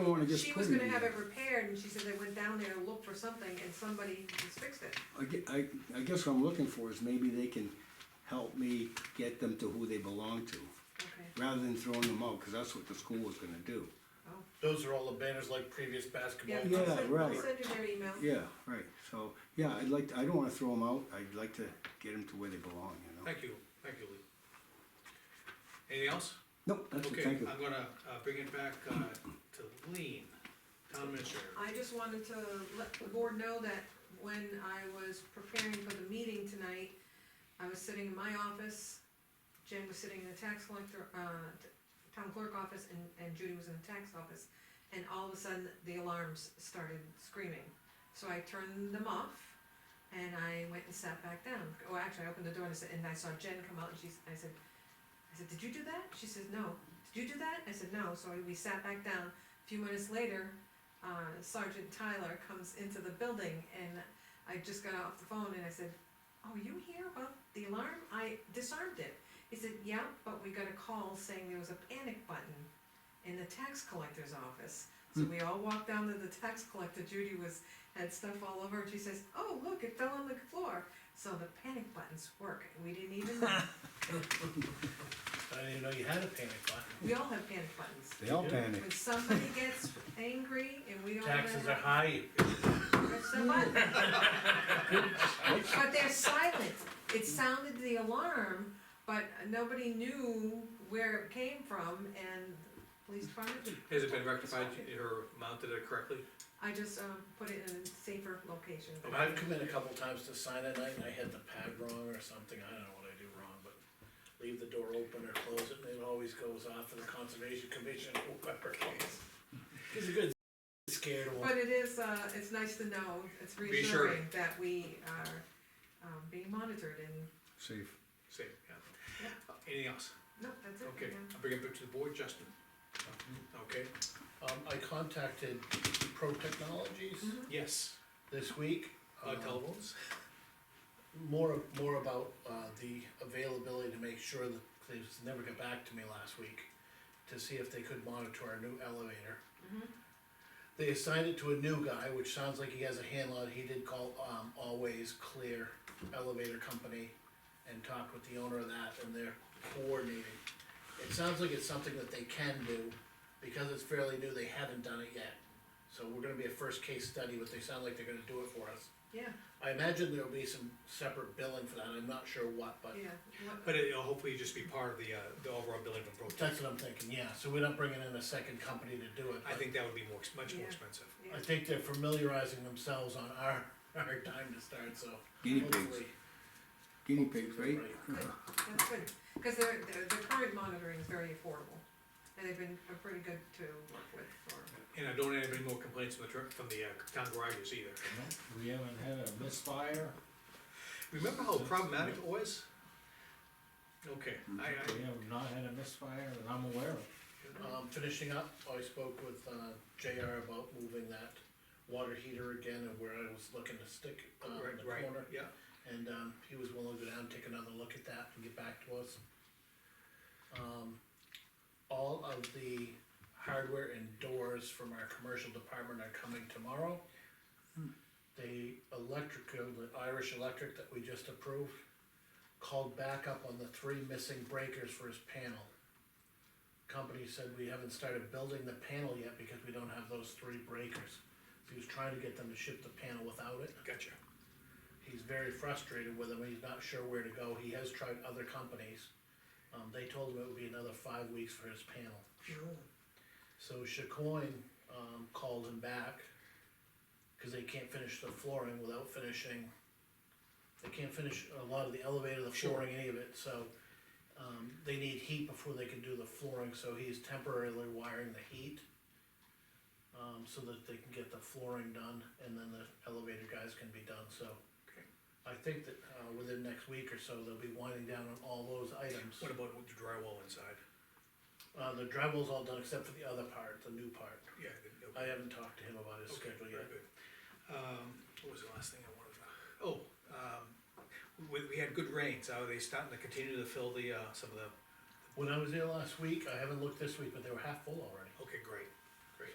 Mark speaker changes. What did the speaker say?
Speaker 1: store and it gets
Speaker 2: She was
Speaker 1: put in
Speaker 2: gonna have
Speaker 1: here.
Speaker 2: it repaired, and she said they went down there and looked for something, and somebody has fixed it.
Speaker 1: I gue- I, I guess what I'm looking for is maybe they can help me get them to who they belong to,
Speaker 2: Okay,
Speaker 1: rather than throwing them out, cause that's what the school was gonna do.
Speaker 2: oh.
Speaker 3: Those are all the banners like previous basketball.
Speaker 2: Yeah, I'll
Speaker 1: Yeah,
Speaker 2: send-
Speaker 1: right.
Speaker 2: I'll send you their email.
Speaker 1: Yeah, right, so, yeah, I'd like, to- I don't wanna throw them out, I'd like to get them to where they belong, you know?
Speaker 4: Thank you, thank you, Lee. Anything else?
Speaker 1: Nope, that's it,
Speaker 4: Okay,
Speaker 1: thank
Speaker 4: I'm
Speaker 1: you.
Speaker 4: gonna, uh, bring it back, uh, to Lean, town administrator.
Speaker 2: I just wanted to let the board know that when I was preparing for the meeting tonight, I was sitting in my office, Jen was sitting in the tax collector, uh, t- town clerk office, and, and Judy was in the tax office. And all of a sudden, the alarms started screaming, so I turned them off, and I went and sat back down. Well, actually, I opened the door and I said, and I saw Jen come out, and she's, I said, I said, did you do that? She says, no. Did you do that? I said, no, so we sat back down. A few minutes later, uh, Sergeant Tyler comes into the building and I just got off the phone and I said, oh, you hear about the alarm? I disarmed it. He said, yeah, but we got a call saying there was a panic button in the tax collector's office. So we all walked down to the tax collector, Judy was, had stuff all over and she says, oh, look, it fell on the floor. So the panic buttons work, we didn't even know,
Speaker 3: I didn't even know you had a panic button.
Speaker 2: we all have panic buttons.
Speaker 1: They all
Speaker 3: Yeah.
Speaker 1: panic.
Speaker 2: When somebody gets angry and we don't. know
Speaker 3: Taxes are
Speaker 2: how-
Speaker 3: high,
Speaker 2: Press the button. But they're silent, it sounded the alarm, but nobody knew where it came from and police department,
Speaker 4: Has it been rectified or mounted it correctly?
Speaker 2: I just, um, put it in a safer location.
Speaker 3: And I've come in a couple times to sign at night and I had the pad wrong or something, I don't know what I do wrong, but leave the door open or close it, and it always goes off to the conservation commission or whoever. It's a good scared one.
Speaker 2: But it is, uh, it's nice to know, it's
Speaker 4: Reassuring.
Speaker 2: reassuring that we are, um, being monitored and,
Speaker 1: Safe.
Speaker 4: Same, yeah. Anything else?
Speaker 2: no, that's it.
Speaker 4: Okay,
Speaker 2: yeah.
Speaker 4: I'll bring it back to the board, Justin. Okay,
Speaker 3: Um, I contacted Pro Technologies
Speaker 4: Mm-hmm. yes,
Speaker 3: this week.
Speaker 4: uh,
Speaker 3: um,
Speaker 4: telephones,
Speaker 3: more, more about, uh, the availability to make sure that, they just never got back to me last week, to see if they could monitor our new elevator. They assigned it to a new guy, which sounds like he has a handle on it, he did call, um, Always Clear Elevator Company and talked with the owner of that, and they're coordinating. It sounds like it's something that they can do, because it's fairly new, they haven't done it yet. So we're gonna be a first case study, but they sound like they're gonna do it for us.
Speaker 2: Yeah,
Speaker 3: I imagine there'll be some separate billing for that, I'm not sure what, but
Speaker 2: yeah, What-
Speaker 4: but it'll hopefully just be part of the, uh, the overall building from Pro Tech.
Speaker 3: that's what I'm thinking, yeah, so we're not bringing in a second company to do it.
Speaker 4: I think that would be more, ex- much more
Speaker 2: Yeah.
Speaker 4: expensive.
Speaker 3: but I
Speaker 2: yeah,
Speaker 3: think they're familiarizing themselves on our, our time to start, so.
Speaker 1: Guinea pigs,
Speaker 3: hopefully-
Speaker 1: Guinea pigs, right?
Speaker 2: good, that's good, cause their, their, their current monitoring is very affordable, and they've been uh, pretty good to work with for.
Speaker 4: And I don't have any more complaints from the, tr- from the, uh, town garages either.
Speaker 5: We haven't had a misfire,
Speaker 4: Remember how problematic it was? Okay, I, I,
Speaker 5: we have not had a misfire that I'm aware of.
Speaker 3: Um, finishing up, I spoke with, uh, JR about moving that water heater again and where I was looking to stick, uh, in the
Speaker 4: right, right,
Speaker 3: corner.
Speaker 4: yeah.
Speaker 3: And, um, he was willing to go down, take another look at that and get back to us. Um, all of the hardware and doors from our commercial department are coming tomorrow. The electrical, the Irish Electric that we just approved, called back up on the three missing breakers for his panel. Company said we haven't started building the panel yet because we don't have those three breakers. He was trying to get them to ship the panel without it
Speaker 4: Gotcha.
Speaker 3: he's very frustrated with him, he's not sure where to go, he has tried other companies. Um, they told him it would be another five weeks for his panel. So Chacoin, um, called him back, cause they can't finish the flooring without finishing, they can't finish a lot of the elevator, the
Speaker 4: Sure.
Speaker 3: flooring, any of it, so. Um, they need heat before they can do the flooring, so he's temporarily wiring the heat. Um, so that they can get the flooring done, and then the elevator guys can be done, so.
Speaker 4: Okay.
Speaker 3: I think that, uh, within next week or so, they'll be winding down on all those items.
Speaker 4: What about with the drywall inside?
Speaker 3: Uh, the drywall's all done except for the other part, the new part.
Speaker 4: Yeah. the- okay.
Speaker 3: I haven't talked to him about his
Speaker 4: Okay,
Speaker 3: schedule
Speaker 4: very
Speaker 3: yet.
Speaker 4: good. Um, what was the last thing I wanted to, oh, um, we, we had good rains, are they starting to continue to fill the, uh, some of the,
Speaker 3: When I was there last week, I haven't looked this week, but they were half full already.
Speaker 4: okay, great,